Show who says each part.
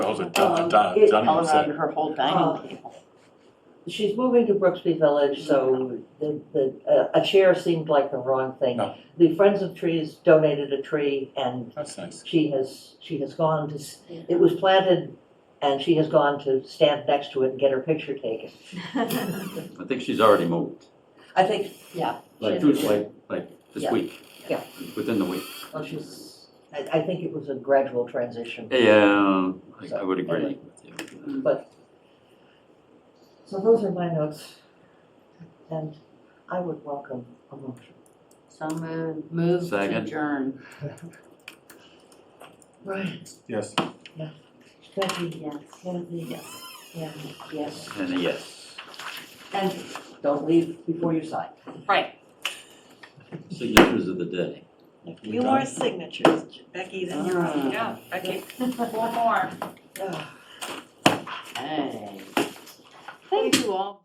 Speaker 1: calls it
Speaker 2: Um,
Speaker 1: dun- dun-
Speaker 2: it-
Speaker 1: dun-
Speaker 3: all
Speaker 1: dunning
Speaker 3: around
Speaker 1: set.
Speaker 3: her whole dining table.
Speaker 2: She's moving to Brooksby Village,
Speaker 4: Mm-hmm.
Speaker 2: so the, the, uh, a chair seemed like the wrong thing.
Speaker 1: No.
Speaker 2: The Friends of Trees donated a tree and
Speaker 1: That's nice.
Speaker 2: she has, she has gone to, s- it was planted and she has gone to stand next to it and get her picture taken.
Speaker 4: I think she's already moved,
Speaker 2: I think, yeah,
Speaker 4: like,
Speaker 2: She-
Speaker 4: two- like, like this
Speaker 2: Yeah.
Speaker 4: week.
Speaker 2: Yeah.
Speaker 4: Within the week.
Speaker 2: well, she's, I, I think it was a gradual transition.
Speaker 4: Yeah, I, I
Speaker 2: So,
Speaker 4: would agree
Speaker 2: anyway.
Speaker 4: with you.
Speaker 2: So those are my notes. And I would welcome a motion.
Speaker 3: So move, move to
Speaker 4: Second.
Speaker 3: adjourn.
Speaker 2: Right.
Speaker 1: Yes.
Speaker 2: Becky,
Speaker 3: Yes,
Speaker 2: Kathy,
Speaker 3: yes,
Speaker 2: yeah,
Speaker 3: yes.
Speaker 4: And a yes,
Speaker 2: and don't leave before you sign.
Speaker 3: Right.
Speaker 4: signatures of the day.
Speaker 5: A few more signatures, Becky, then you're on.
Speaker 3: Yeah, okay, four more.
Speaker 2: Ah.
Speaker 3: Hey. Thank you all.